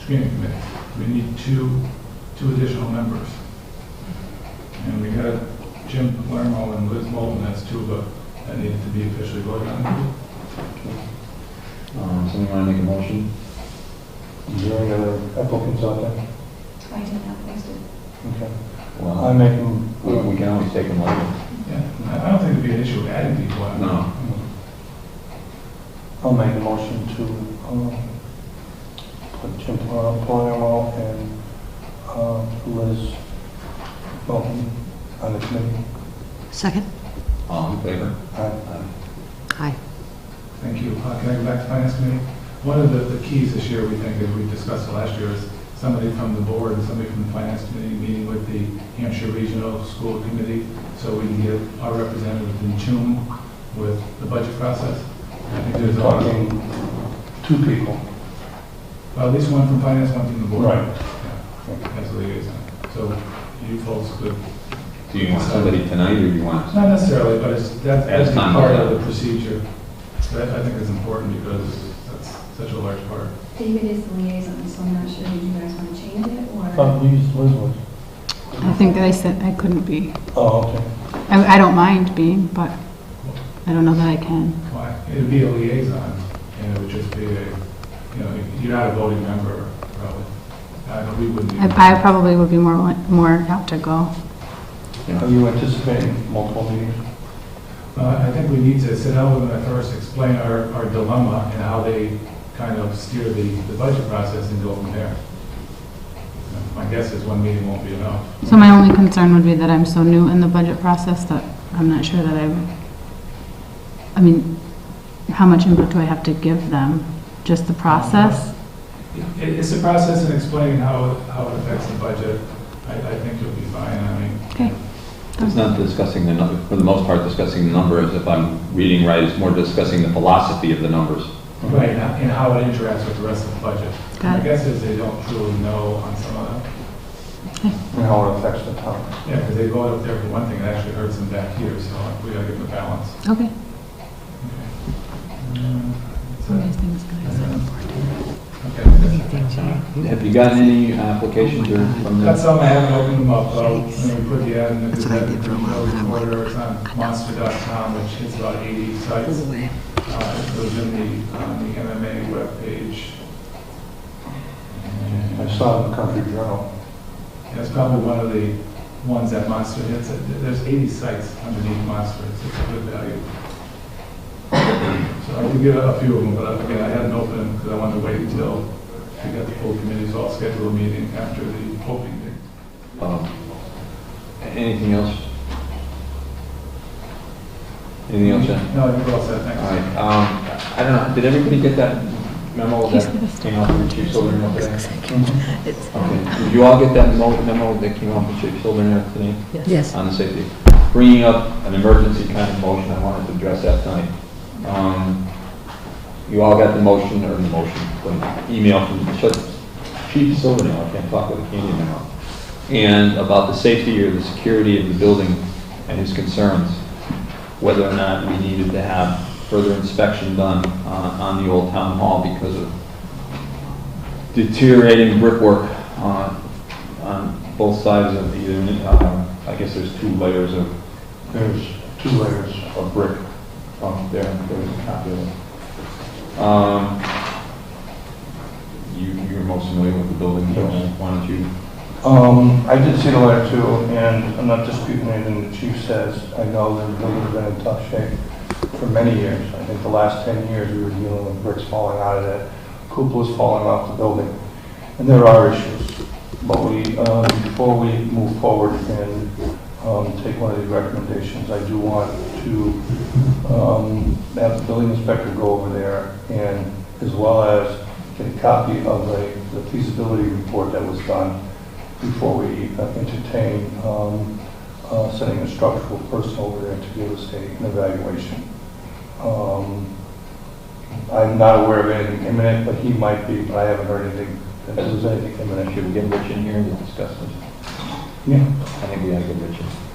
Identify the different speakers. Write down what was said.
Speaker 1: screening committee. We need two, two additional members. And we had Jim Palermo and Liz Moulton, that's two of us that needed to be officially voted on.
Speaker 2: Um, Somebody want to make a motion?
Speaker 3: Is there any other applicants out there?
Speaker 4: I did not post it.
Speaker 3: Okay.
Speaker 2: Well,
Speaker 3: I'm making,
Speaker 2: we we can always take them later.
Speaker 1: Yeah, I I don't think it'd be an issue of adding people. I-
Speaker 2: No.
Speaker 3: I'll make a motion to, um, put Jim Pal- Palermo and, uh, Liz Moulton on the committee.
Speaker 5: Second?
Speaker 2: All in favor?
Speaker 3: Aye.
Speaker 5: Aye.
Speaker 1: Thank you. Uh, Can I go back to finance committee? One of the the keys this year, we think, as we discussed last year, is somebody from the board and somebody from the finance committee meeting with the Hampshire Regional School Committee, so we can get our representatives in tune with the budget process. I think there's a lot of,
Speaker 3: Talking two people.
Speaker 1: well, at least one from finance, one from the board.
Speaker 3: Right.
Speaker 1: Yeah, As a liaison. So you folks could,
Speaker 2: Do you want somebody tonight or you want?
Speaker 1: not necessarily, but it's, that's,
Speaker 2: That's
Speaker 1: that's
Speaker 2: not-
Speaker 1: part of the procedure. That, I think is important because that's such a large part.
Speaker 4: David is the liaison, so I'm not sure if you guys want to change it or.
Speaker 3: Oh, you used Liz was.
Speaker 6: I think that I said I couldn't be.
Speaker 3: Oh, okay.
Speaker 6: I, I don't mind being, but I don't know that I can.
Speaker 1: Why? It'd be a liaison, and it would just be a, you know, you're not a voting member, probably. I don't, we wouldn't. be-
Speaker 6: I, I probably would be more, wi- more apt to go.
Speaker 3: Are you anticipating multiple meetings?
Speaker 1: Uh, I think we need to sit down with them at first, explain our, our dilemma and how they kind of steer the, the budget process and go from there. My guess is one meeting won't be enough.
Speaker 6: So my only concern would be that I'm so new in the budget process that I'm not sure that I, I mean, how much input do I have to give them? Just the process?
Speaker 1: It, it's a process in explaining how, how it affects the budget. I, I think you'll be fine, I mean.
Speaker 6: Okay.
Speaker 2: It's not discussing the, nu- for the most part, discussing the numbers, if I'm reading right, it's more discussing the philosophy of the numbers.
Speaker 1: Right, and and how it interacts with the rest of the budget.
Speaker 6: Got
Speaker 1: My
Speaker 6: it.
Speaker 1: guess is they don't truly know on some of them.
Speaker 3: And how it affects the town?
Speaker 1: Yeah, because they voted up there for one thing, it actually hurts them back here, so we gotta give them a balance.
Speaker 6: Okay.
Speaker 1: Mm, so-
Speaker 6: Some of these things that I said.
Speaker 1: Okay.
Speaker 2: Have you gotten any applications or from
Speaker 1: That's
Speaker 2: the?
Speaker 1: something I haven't opened them up, though, when we put the ad in the
Speaker 5: That's what I
Speaker 1: Gazette,
Speaker 5: did for a while,
Speaker 1: the
Speaker 5: and I'm like,
Speaker 1: reporter, it's on monster.com, which hits about 80 sites. Uh, It was in the, on the MMA webpage. And-
Speaker 3: I saw it in the Country Journal.
Speaker 1: That's probably one of the ones that Monster hits. There's 80 sites underneath Monster. It's it's a good value. So I did get a few of them, but again, I hadn't opened them because I wanted to wait until we got the full committees all scheduled meeting after the opening day.
Speaker 2: Um, Anything else? Anything else, Jen?
Speaker 1: No, I think we're all set.
Speaker 2: All
Speaker 1: Thanks.
Speaker 2: right, um, I don't know, did everybody get that memo that came out from Chief Silvernail today? Mm-hmm. Okay, did you all get that mo- memo that came out from Chief Silvernail today?
Speaker 5: Yes.
Speaker 2: on the safety. Bringing up an emergency kind of motion, I wanted to address that tonight. Um, You all got the motion, or the motion, the email from Ch- Chief Silvernail, I can't talk with a Canadian now, and about the safety or the security of the building and his concerns, whether or not we needed to have further inspection done uh, on the old town hall because of deteriorating brickwork uh, on both sides of either, uh, I guess there's two layers of
Speaker 3: There's two layers.
Speaker 2: of brick up there, there's a copy of it. Um, You, you're most familiar with the building, so why don't you?
Speaker 3: Um, I did see the letter too, and I'm not disputing anything the chief says. I know that the building's been in tough shape for many years. I think the last 10 years, we were dealing with bricks falling out of it, cupolas falling off the building. And there are issues. But we, um, before we move forward and um, take one of these recommendations, I do want to um, have the building inspector go over there and as well as get a copy of the the feasibility report that was done before we uh, entertain um, uh, sending a structural person over there to give us a- an evaluation. Um, I'm not aware of anything imminent, but he might be, but I haven't heard anything, that there's anything imminent.
Speaker 2: Should we get Rich in here to discuss this?
Speaker 3: Yeah.
Speaker 2: I think we ought to get Rich in.